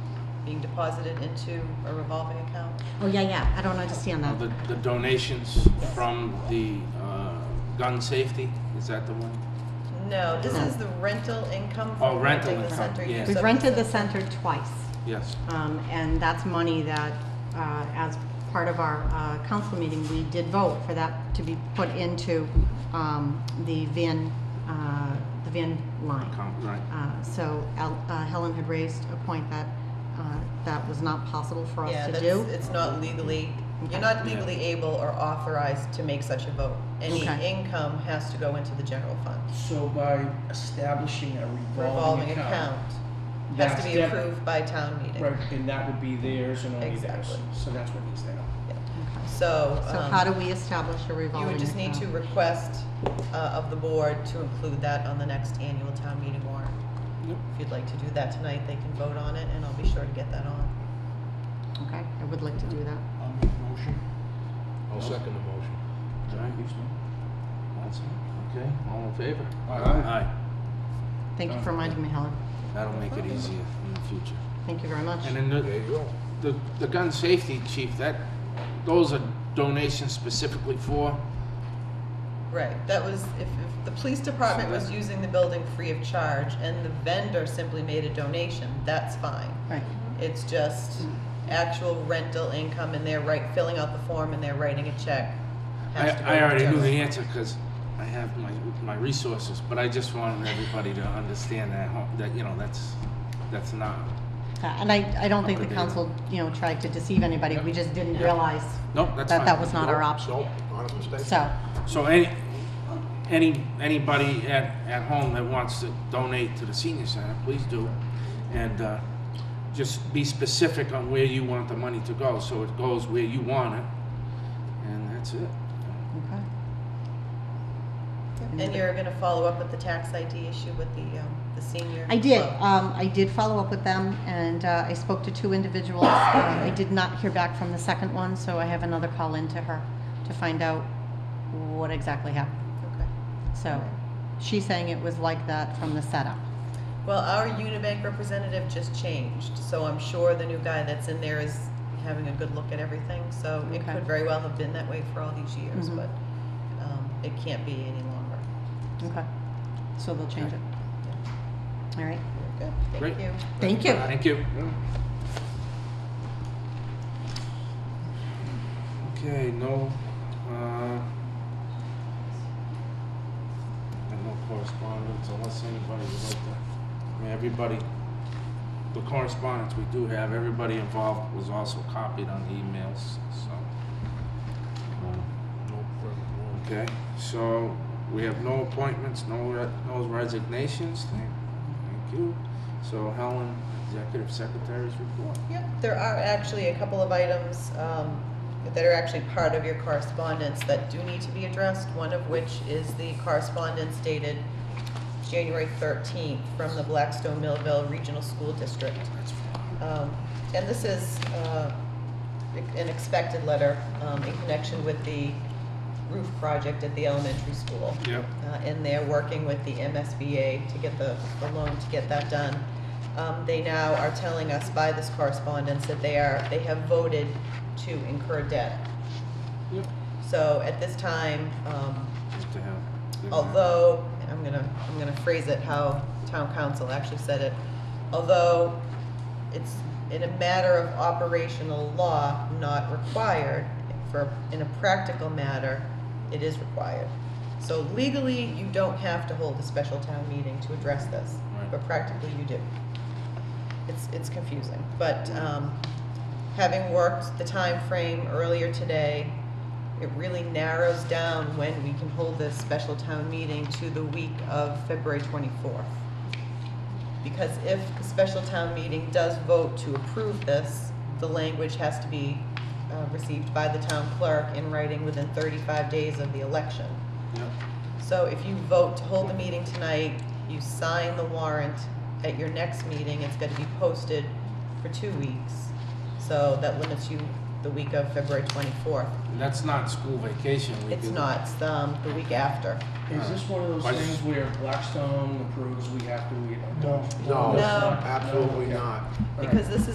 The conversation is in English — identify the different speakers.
Speaker 1: being deposited into a revolving account?
Speaker 2: Oh, yeah, yeah, I don't understand
Speaker 3: Uh,
Speaker 2: that.
Speaker 3: The, the donations from the uh, gun safety, is that the one?
Speaker 1: No, this
Speaker 2: No.
Speaker 1: is the rental income
Speaker 3: Oh,
Speaker 1: from
Speaker 3: rental
Speaker 1: renting the
Speaker 3: income,
Speaker 1: center.
Speaker 3: yeah.
Speaker 1: use
Speaker 2: We've
Speaker 1: of
Speaker 2: rented the
Speaker 1: center.
Speaker 2: center twice,
Speaker 3: Yes.
Speaker 2: um, and that's money that, uh, as part of our uh, council meeting, we did vote for that to be put into um, the van, uh, the van line.
Speaker 3: Com- Right.
Speaker 2: Uh, So El- uh, Helen had raised a point that uh, that was not possible for
Speaker 1: Yeah,
Speaker 2: us to
Speaker 1: that's-
Speaker 2: do.
Speaker 1: It's not legally,
Speaker 2: Okay.
Speaker 1: you're not legally able or authorized to make such a vote. Any
Speaker 2: Okay.
Speaker 1: income has to go into the general fund.
Speaker 4: So by establishing a revolving
Speaker 1: Revolving
Speaker 4: account.
Speaker 1: account has
Speaker 4: that's
Speaker 1: to be
Speaker 4: def-
Speaker 1: approved by town meeting.
Speaker 4: Right, and that would be theirs and only theirs,
Speaker 1: Exactly.
Speaker 4: so that's what needs to happen.
Speaker 2: Okay.
Speaker 1: So.
Speaker 2: So
Speaker 1: um,
Speaker 2: how do we establish a
Speaker 1: You
Speaker 2: revolving
Speaker 1: would just need to
Speaker 2: account?
Speaker 1: request uh, of the board to include that on the next annual town meeting warrant.
Speaker 3: Yep.
Speaker 1: If you'd like to do that tonight, they can vote on it, and I'll be sure to get that on.
Speaker 2: Okay, I would like to do that.
Speaker 5: I'll make a motion.
Speaker 3: I'll second
Speaker 5: the motion.
Speaker 3: All right, that's it. Okay, all in favor?
Speaker 5: Aye.
Speaker 3: Aye.
Speaker 2: Thank you for reminding me, Helen.
Speaker 3: That'll make it easier in the future.
Speaker 2: Thank you very much.
Speaker 3: And then
Speaker 5: There
Speaker 3: the,
Speaker 5: you go.
Speaker 3: the, the gun safety chief, that, those are donations specifically for,
Speaker 1: Right, that was, if, if the police department was using the building free of charge and the vendor simply made a donation, that's fine.
Speaker 2: Right.
Speaker 1: It's just actual rental income, and they're right, filling out the form and they're writing a check.
Speaker 3: I,
Speaker 1: Has to go
Speaker 3: I
Speaker 1: to
Speaker 3: already knew
Speaker 1: Joe's.
Speaker 3: the answer because I have my, my resources, but I just wanted everybody to understand that, ho- that, you know, that's, that's not,
Speaker 2: Uh, And I, I don't think the council, you know, tried to deceive anybody. We just didn't realize
Speaker 3: no,
Speaker 2: that
Speaker 3: that's fine.
Speaker 2: that was not our
Speaker 5: Nope,
Speaker 2: option.
Speaker 5: nope, not a mistake.
Speaker 2: So,
Speaker 3: So any, any, anybody at, at home that wants to donate to the senior center, please do. And, uh, just be specific on where you want the money to go, so it goes where you want it. And that's it.
Speaker 2: okay.
Speaker 1: And you're gonna follow up with the tax ID issue with the, um, the senior.
Speaker 2: I did.
Speaker 1: club.
Speaker 2: Um, I did follow up with them, and uh, I spoke to two individuals. Uh, I did not hear back from the second one, so I have another call in to her to find out what exactly happened.
Speaker 1: Okay.
Speaker 2: So, she's saying it was like that from the setup.
Speaker 1: Well, our Unibank representative just changed, so I'm sure the new guy that's in there is having a good look at everything. So it
Speaker 2: Okay.
Speaker 1: could very well have been that way for all these years,
Speaker 2: Mhm.
Speaker 1: but um, it can't be any longer.
Speaker 2: Okay. So they'll change it. All right.
Speaker 1: Good,
Speaker 3: Great.
Speaker 1: thank you.
Speaker 2: Thank you.
Speaker 3: Thank you. Okay, no, uh, and no correspondence unless anybody would like to, I mean, everybody, the correspondence we do have, everybody involved was also copied on the emails, so. uh,
Speaker 5: No further
Speaker 3: Okay, so we have no appointments, no, re- no resignations, thank, thank you. So Helen, Executive Secretary's report.
Speaker 1: Yep, there are actually a couple of items um, that are actually part of your correspondence that do need to be addressed, one of which is the correspondence dated January 13th from the Blackstone Millville Regional School District. Um, And this is uh, an expected letter um, in connection with the roof project at the elementary school
Speaker 3: Yep.
Speaker 1: uh, and they're working with the MSBA to get the, the loan to get that done. Um, they now are telling us by this correspondence that they are, they have voted to incur debt.
Speaker 3: Yep.
Speaker 1: So at this time, um,
Speaker 3: Just to have.
Speaker 1: although, I'm gonna, I'm gonna phrase it how town council actually said it, although it's in a matter of operational law, not required, for, in a practical matter, it is required. So legally, you don't have to hold a special town meeting to address this,
Speaker 3: Right.
Speaker 1: but practically you do. It's, it's confusing, but, um, having worked the time frame earlier today, it really narrows down when we can hold this special town meeting to the week of February 24th. Because if the special town meeting does vote to approve this, the language has to be uh, received by the town clerk in writing within 35 days of the election.
Speaker 3: Yep.
Speaker 1: So if you vote to hold the meeting tonight, you sign the warrant at your next meeting, it's gonna be posted for two weeks. So that limits you the week of February twenty-fourth.
Speaker 3: That's not school vacation week.
Speaker 1: It's
Speaker 3: is it?
Speaker 1: not, it's um, the week after.
Speaker 4: Is this one of
Speaker 3: Why
Speaker 4: those
Speaker 3: does-
Speaker 4: things where Blackstone approves we have to? we-
Speaker 5: No.
Speaker 4: it's
Speaker 1: No.
Speaker 4: not.
Speaker 5: Absolutely
Speaker 4: Okay.
Speaker 5: not.
Speaker 4: All right.
Speaker 1: Because this is